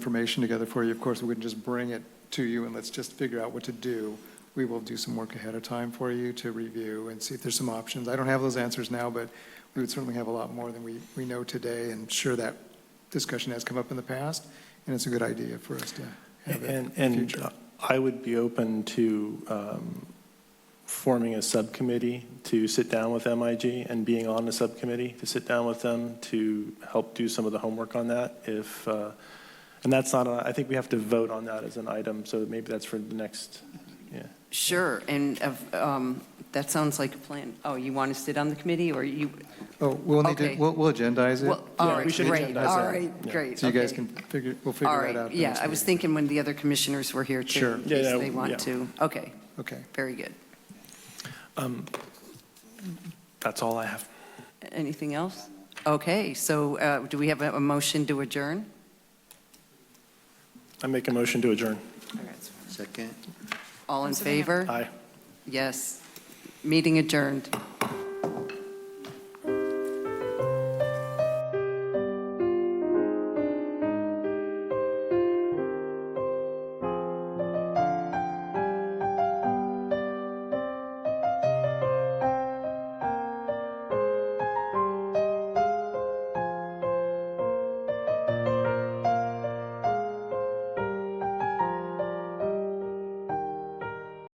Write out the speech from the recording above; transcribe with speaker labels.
Speaker 1: information together for you. Of course, we wouldn't just bring it to you and let's just figure out what to do. We will do some work ahead of time for you to review and see if there's some options. I don't have those answers now, but we would certainly have a lot more than we, we know today. And sure, that discussion has come up in the past, and it's a good idea for us to have it
Speaker 2: And, uh,
Speaker 1: in the
Speaker 2: and
Speaker 1: future.
Speaker 2: I would be open to um, forming a subcommittee to sit down with MIG and being on the subcommittee to sit down with them to help do some of the homework on that if, uh, and that's not, a- I think we have to vote on that as an item, so maybe that's for the next, yeah.
Speaker 3: Sure, and of, um, that sounds like a plan. Oh, you want to sit on the committee, or you,
Speaker 1: Oh, we'll need to,
Speaker 3: Okay.
Speaker 1: we'll, we'll agendize
Speaker 3: well,
Speaker 1: it.
Speaker 3: all
Speaker 2: Yeah, we
Speaker 3: right,
Speaker 2: should
Speaker 3: great,
Speaker 2: agendize
Speaker 3: all
Speaker 2: that.
Speaker 3: right,
Speaker 2: Yeah.
Speaker 3: great.
Speaker 1: So you guys
Speaker 3: okay.
Speaker 1: can figure, we'll
Speaker 3: All
Speaker 1: figure that out.
Speaker 3: right,
Speaker 1: at the
Speaker 3: yeah,
Speaker 1: next
Speaker 3: I was
Speaker 1: meeting.
Speaker 3: thinking when the other commissioners were here, too,
Speaker 1: Sure.
Speaker 3: in
Speaker 2: Yeah,
Speaker 3: case
Speaker 2: yeah,
Speaker 3: they
Speaker 2: yeah.
Speaker 3: want to. Okay,
Speaker 1: Okay.
Speaker 3: very good.
Speaker 2: That's all I have.
Speaker 3: Anything else? Okay, so uh, do we have a a motion to adjourn?
Speaker 2: I make a motion to adjourn.
Speaker 4: Second.
Speaker 3: All in favor?
Speaker 2: Aye.
Speaker 3: Yes. Meeting adjourned.